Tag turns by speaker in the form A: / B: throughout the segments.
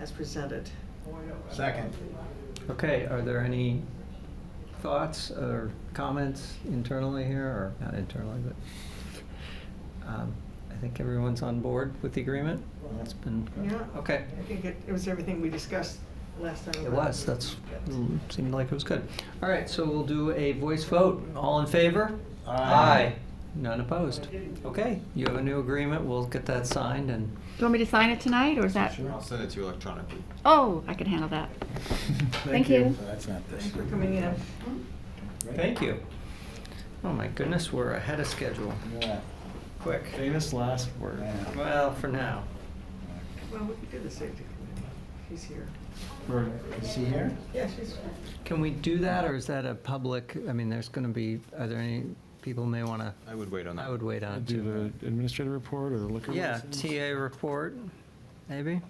A: as presented.
B: Second.
C: Okay, are there any thoughts or comments internally here, or not internally, but um, I think everyone's on board with the agreement? It's been,
A: Yeah.
C: okay.
A: I think it, it was everything we discussed last time.
C: It was, that's, mm, seemed like it was good. All right, so we'll do a voice vote. All in favor?
B: Aye.
C: None opposed? Okay, you have a new agreement, we'll get that signed and,
D: Do you want me to sign it tonight, or is that?
B: Sure.
E: I'll send it to you electronically.
D: Oh, I can handle that. Thank you.
B: So That's not this.
A: Thanks for coming in.
B: Right?
C: thank you. Oh my goodness, we're ahead of schedule.
B: Look at
C: Quick.
F: Famous last
B: that.
F: word.
B: Yeah.
C: Well, for now.
A: Well, we can do the safety committee. She's here.
F: Right.
B: Is he here?
A: Yeah, she's here.
C: Can we do that, or is that a public, I mean, there's going to be, are there any, people may want to,
E: I would wait on that.
C: I would wait on it
F: Do
C: too.
F: the administrative report or the liquor
C: Yeah,
F: license?
C: TA report, maybe?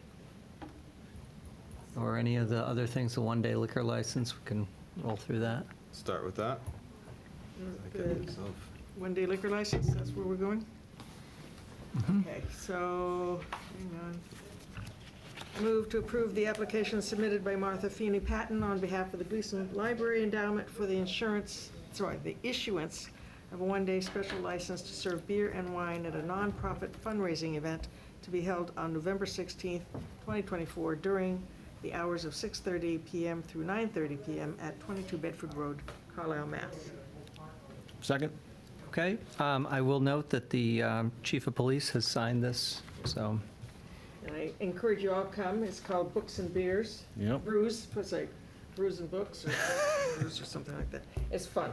C: Or any of the other things, the one-day liquor license, we can roll through that.
E: Start with that. I
A: The
E: can myself.
A: One-day liquor license, that's where we're going?
C: Mm-hmm.
A: Okay, so, hang on. Move to approve the application submitted by Martha Feeney Patton on behalf of the Gleason Library Endowment for the insurance, sorry, the issuance of a one-day special license to serve beer and wine at a nonprofit fundraising event to be held on November 16th, 2024, during the hours of 6:30 PM through 9:30 PM at 22 Bedford Road, Carlisle, Mass.
F: Second?
C: Okay, um, I will note that the um, chief of police has signed this, so,
A: And I encourage you all to come. It's called Books and Beers.
F: Yep.
A: Brews, it's like brews and books or brews or something like that. It's fun.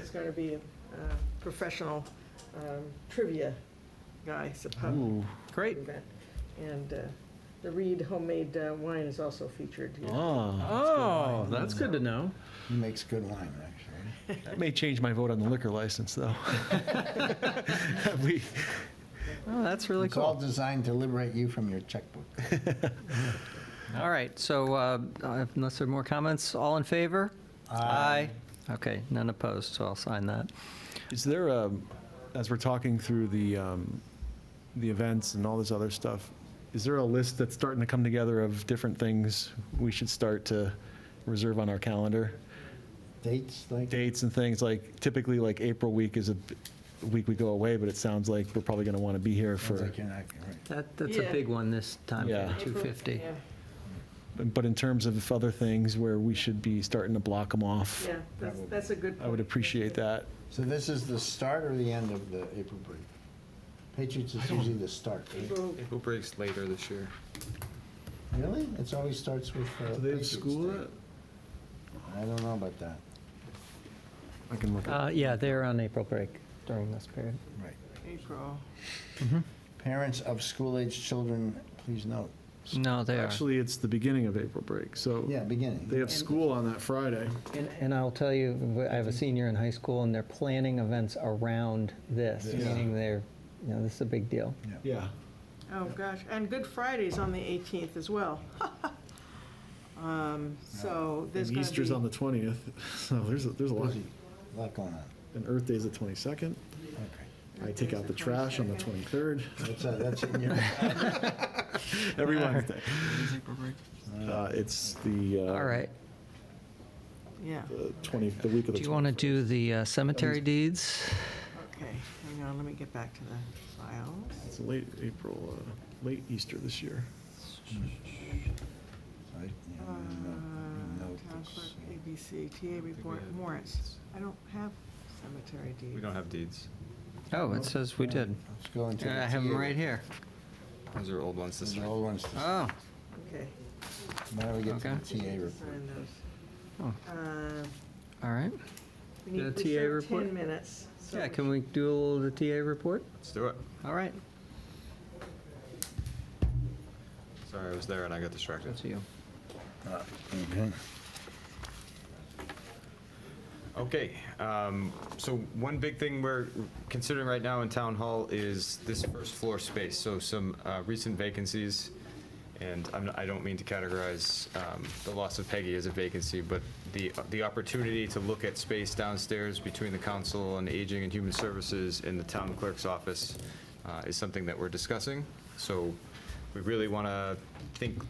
A: It's going to be a uh, professional um, trivia guy. It's a pub
F: Ooh,
C: great.
A: event. And uh, the Reed homemade uh, wine is also featured here.
F: ah,
C: Oh, that's good to know.
B: He makes good wine, actually.
F: that may change my vote on the liquor license, though. We,
C: Oh, that's really
B: It's all
C: cool.
B: designed to liberate you from your checkbook.
C: All right, so uh, unless there are more comments, all in favor? Aye. Okay, none opposed, so I'll sign that.
F: Is there, um, as we're talking through the, um, the events and all this other stuff, is there a list that's starting to come together of different things we should start to reserve on our calendar?
B: Dates, like,
F: Dates and things, like typically like April week is a b- week we go away, but it sounds like we're probably going to want to be here
B: sounds
F: for,
B: like you're not, right.
C: That, that's a
A: Yeah.
C: big one this time, for
F: Yeah.
C: the 250.
A: Yeah,
F: but in terms of other things where we should be starting to block them off,
A: yeah, that's, that's a good
F: I would
A: point.
F: appreciate that.
B: So this is the start or the end of the April break? Patriots is usually the start, right?
A: April-
E: April breaks later this year.
B: Really? It always starts with uh, Patriots Day. I don't know about that.
F: I can look at
C: Uh, Yeah, they're on April break during this period.
B: Right.
A: April.
B: Parents of school-aged children, please note.
C: No, they are.
F: Actually, it's the beginning of April break, so
B: Yeah, beginning.
F: they have school on that Friday.
C: And- And I'll tell you, I have a senior in high school, and they're planning events around this,
B: This.
C: meaning they're, you know, this is a big deal.
F: Yeah.
A: Oh, gosh, and Good Friday's on the 18th as well. Um, So there's
F: And
A: going
F: Easter's on
A: to
F: the 20th, so there's, a- there's a lot.
B: Busy. Lot going on.
F: And Earth Day's the 22nd.
B: Okay.
F: I take out the trash on the 23rd.
B: That's, uh, that's in your,
F: Every Wednesday. Uh, It's the. uh,
C: All right.
A: be, yeah.
F: The 20, the week of the.
C: Do you want to
F: 21st.
C: do the uh, cemetery deeds?
A: Okay, hang on, let me get back to the files.
F: It's late April, uh, late Easter this year.
B: I- yeah,
A: Uh,
B: no- no
A: Town clerk,
B: notes.
A: ABC, TA report,
E: have
A: warrants. I don't have cemetery deeds.
E: We don't have deeds.
C: Oh, it says we did.
B: Let's go into.
C: Yeah, I
B: the
C: have them
B: TA.
C: right here.
E: Those are old ones this
B: The
E: year.
B: old ones, this- why
C: Oh,
A: Okay,
B: don't we get to the
C: Okay.
B: TA report?
A: sign
C: Oh.
A: those. Uh,
C: all right.
A: We need,
C: The
A: we
C: TA
A: still have
C: report?
A: 10 minutes. so
C: Yeah, can we do a little of the TA report?
E: Let's do it.
C: All right,
E: Sorry, I was there and I got distracted.
C: that's you.
B: Okay.
E: Okay, um, so one big thing we're considering right now in town hall is this first floor space, so some, uh, recent vacancies. And I'm, I don't mean to categorize, um, the loss of Peggy as a vacancy, but the, the opportunity to look at space downstairs between the council on aging and human services and the town clerk's office, uh, is something that we're discussing. So we really wanna think